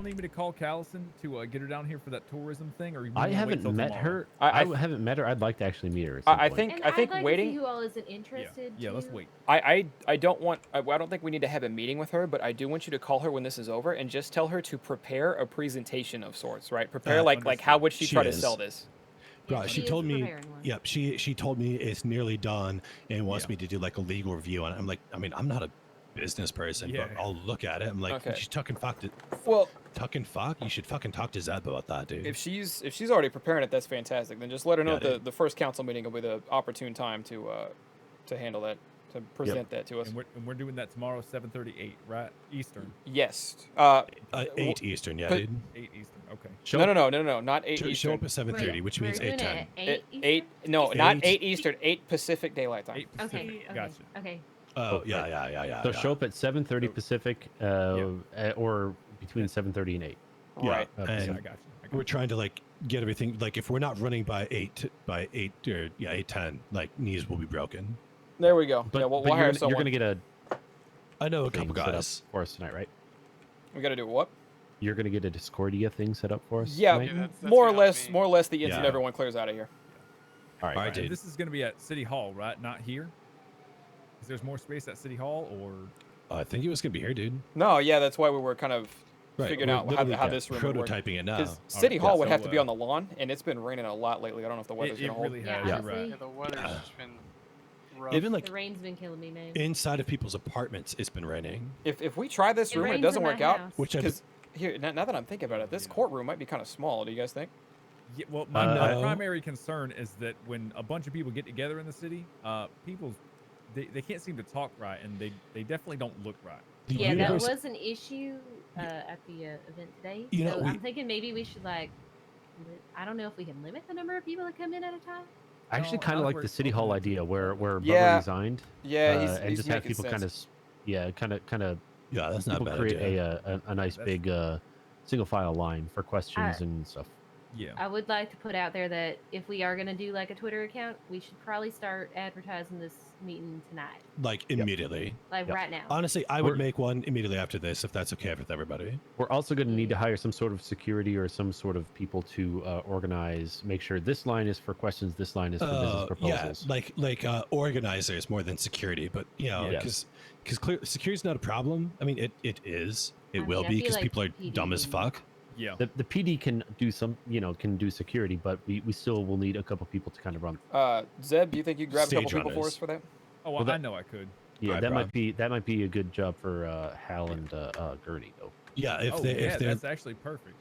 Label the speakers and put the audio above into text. Speaker 1: don't need me to call Callison to uh, get her down here for that tourism thing, or you
Speaker 2: I
Speaker 1: wanna wait
Speaker 2: haven't
Speaker 1: till
Speaker 2: met
Speaker 1: tomorrow?
Speaker 2: her.
Speaker 3: I- I
Speaker 2: I,
Speaker 3: th-
Speaker 2: haven't met her. I'd like to actually meet her. At
Speaker 3: I-
Speaker 2: some
Speaker 3: I
Speaker 2: point.
Speaker 3: think-
Speaker 4: And
Speaker 3: I think
Speaker 4: would like To
Speaker 3: waiting-
Speaker 4: see who all isn't
Speaker 1: Yeah,
Speaker 4: interested.
Speaker 1: yeah. Let's
Speaker 4: too.
Speaker 1: wait.
Speaker 3: I, I, I don't want, I, I don't think we need to have a meeting with her, but I do want you to call her when this is over and just tell her to prepare a presentation of sorts, right? Prepare
Speaker 5: Uh,
Speaker 3: like, like how
Speaker 1: understood.
Speaker 3: would she,
Speaker 5: She
Speaker 3: try to
Speaker 5: is.
Speaker 3: sell this?
Speaker 5: Bro,
Speaker 4: Yeah,
Speaker 5: she
Speaker 4: is
Speaker 5: told me-
Speaker 4: preparing one.
Speaker 5: Yep, she she told me it's nearly done and wants
Speaker 1: Yeah.
Speaker 5: me to do like a legal review on it. I'm like, I mean, I'm not a business person,
Speaker 1: Yeah.
Speaker 5: but I'll look at it. I'm like,
Speaker 3: Okay.
Speaker 5: she's tucking fuck. To,
Speaker 3: Well,
Speaker 5: tucking fuck. You should fucking talk to Zeb about that, dude.
Speaker 3: if she's if she's already preparing it, that's fantastic. Then just let her know
Speaker 5: Got
Speaker 3: the, the first council meeting will be the opportune time to uh, to handle that, to present that to us.
Speaker 1: And we're, and we're doing that tomorrow, 7:38, right? Eastern,
Speaker 3: Yes. Uh,
Speaker 5: uh,
Speaker 3: w-
Speaker 5: eight Eastern, yeah,
Speaker 3: but-
Speaker 5: dude.
Speaker 1: 8 Eastern. Okay.
Speaker 5: Show
Speaker 3: no,
Speaker 5: up-
Speaker 3: no, no, no, no, not eight
Speaker 5: show- show
Speaker 3: Eastern.
Speaker 5: up at seven
Speaker 4: We're-
Speaker 5: thirty, which
Speaker 4: we're
Speaker 5: means
Speaker 4: doing
Speaker 5: eight
Speaker 4: it
Speaker 5: ten.
Speaker 4: at
Speaker 3: Eight,
Speaker 4: Eight.
Speaker 3: eight,
Speaker 4: Eastern?
Speaker 3: no, not
Speaker 5: Eight.
Speaker 3: eight Eastern, eight Pacific Daylight Time.
Speaker 1: 8 Pacific.
Speaker 4: Okay. Okay.
Speaker 1: Gotcha.
Speaker 4: Okay.
Speaker 5: Oh yeah, yeah, yeah, yeah.
Speaker 2: So
Speaker 5: yeah.
Speaker 2: show up at 7:30 Pacific, uh, uh or between 7:30 and 8.
Speaker 5: yeah.
Speaker 3: Right.
Speaker 2: Uh,
Speaker 5: And
Speaker 1: Yeah, I
Speaker 2: Pacific.
Speaker 1: got you. I got
Speaker 5: we're trying to like get everything like if we're not running by eight by eight or yeah eight ten, like knees will be broken.
Speaker 3: There we go.
Speaker 2: But,
Speaker 3: yeah, we'll,
Speaker 2: but
Speaker 3: we'll
Speaker 2: you're, gonna,
Speaker 3: hire
Speaker 2: you're
Speaker 3: someone.
Speaker 2: gonna get a
Speaker 5: I know a
Speaker 2: thing
Speaker 5: couple
Speaker 2: set up
Speaker 5: guys.
Speaker 2: for us tonight, right?
Speaker 3: we gotta do what?
Speaker 2: You're gonna get a Discordia thing set up for us.
Speaker 3: Yeah,
Speaker 2: tonight?
Speaker 6: Yeah, that's- that's
Speaker 3: more or
Speaker 6: gonna help
Speaker 3: less,
Speaker 6: me.
Speaker 3: more or less, the instant
Speaker 5: Yeah.
Speaker 3: everyone clears out of here.
Speaker 2: All
Speaker 5: All
Speaker 2: right.
Speaker 5: right,
Speaker 1: you.
Speaker 5: dude.
Speaker 1: This is going to be at City Hall, right? Not here. Is there's more space at City Hall, or
Speaker 5: I think it was gonna be here, dude.
Speaker 3: No, yeah, that's why we were kind of
Speaker 5: Right.
Speaker 3: figuring
Speaker 5: we're
Speaker 3: out how,
Speaker 5: literally
Speaker 3: how
Speaker 5: got-
Speaker 3: this room would work.
Speaker 5: prototyping it Oh, now.
Speaker 3: Because City
Speaker 1: yeah,
Speaker 3: Hall would
Speaker 1: so,
Speaker 3: have to be
Speaker 1: uh,
Speaker 3: on the lawn, and it's been raining a lot lately. I don't know if the weather's
Speaker 1: it, it
Speaker 3: gonna hold.
Speaker 1: really
Speaker 4: Yeah,
Speaker 1: has?
Speaker 4: yeah,
Speaker 1: You're right.
Speaker 6: Yeah, the weather's just been rough.
Speaker 5: Even like
Speaker 4: The rain's been killing me, man.
Speaker 5: inside of people's apartments, it's been raining.
Speaker 3: If, if we try this
Speaker 4: It
Speaker 3: room and
Speaker 4: rains
Speaker 3: it
Speaker 4: in
Speaker 3: doesn't
Speaker 4: my
Speaker 3: work out,
Speaker 4: house.
Speaker 5: Which I
Speaker 3: because here now, now that I'm thinking about it, this
Speaker 1: Yeah.
Speaker 3: courtroom might be kind of small. Do you guys think?
Speaker 1: Yeah, well, my,
Speaker 2: Uh,
Speaker 1: my
Speaker 5: no.
Speaker 1: primary concern is that when a bunch of people get together in the city, uh, people they, they can't seem to talk right, and they they definitely don't look right.
Speaker 5: the
Speaker 4: yeah, that
Speaker 5: universe-
Speaker 4: was an issue uh, at the uh, event today.
Speaker 5: You know,
Speaker 4: so
Speaker 5: we-
Speaker 4: I'm thinking maybe we should like, li- I don't know if we can limit the number of people that come in at a time.
Speaker 2: I actually
Speaker 1: No,
Speaker 2: kind
Speaker 1: now
Speaker 2: of
Speaker 1: that
Speaker 2: like
Speaker 1: we're
Speaker 2: the City
Speaker 1: open
Speaker 2: Hall
Speaker 1: to
Speaker 2: idea where where Bubba
Speaker 3: Yeah.
Speaker 2: resigned
Speaker 3: Yeah,
Speaker 2: uh,
Speaker 3: he's,
Speaker 2: and
Speaker 3: he's
Speaker 2: just have
Speaker 3: making
Speaker 2: people
Speaker 3: sense.
Speaker 2: kind of yeah, kind of kind of
Speaker 5: yeah, that's not
Speaker 2: people
Speaker 5: bad.
Speaker 2: create a,
Speaker 5: idea.
Speaker 2: uh, a a nice
Speaker 1: That's-
Speaker 2: big uh, single file line for questions and stuff.
Speaker 1: Yeah,
Speaker 4: I would like to put out there that if we are going to do like a Twitter account, we should probably start advertising this meeting tonight,
Speaker 5: like immediately.
Speaker 4: like
Speaker 2: Yep.
Speaker 4: right now.
Speaker 5: Honestly, I would
Speaker 2: We're-
Speaker 5: make one immediately after this if that's okay with everybody.
Speaker 2: We're also going to need to hire some sort of security or some sort of people to uh, organize, make sure this line is for questions, this line is for business
Speaker 5: Uh, yeah,
Speaker 2: proposals.
Speaker 5: like like uh, organizers more than security, but you know,
Speaker 2: Yeah.
Speaker 5: because because clear security's not a problem. I mean, it it is. It
Speaker 4: I mean,
Speaker 5: will
Speaker 4: I
Speaker 5: be
Speaker 4: feel
Speaker 5: because
Speaker 4: like
Speaker 5: people are
Speaker 4: PD
Speaker 5: dumb as
Speaker 4: would-
Speaker 5: fuck.
Speaker 1: yeah.
Speaker 2: The, the PD can do some, you know, can do security, but we, we still will need a couple people to kind of run.
Speaker 3: Uh, Zeb, do you think you grab a couple
Speaker 5: Stage
Speaker 3: people for
Speaker 5: runners.
Speaker 3: us for that?
Speaker 1: Oh,
Speaker 2: Well,
Speaker 1: I
Speaker 2: that-
Speaker 1: know I could.
Speaker 2: Yeah,
Speaker 5: Alright,
Speaker 2: that
Speaker 5: Rob.
Speaker 2: might be that might be a good job for uh, Hal and uh, uh, Gertie though.
Speaker 5: Yeah, if
Speaker 1: oh,
Speaker 5: they
Speaker 1: yeah,
Speaker 5: if they're
Speaker 1: that's actually perfect.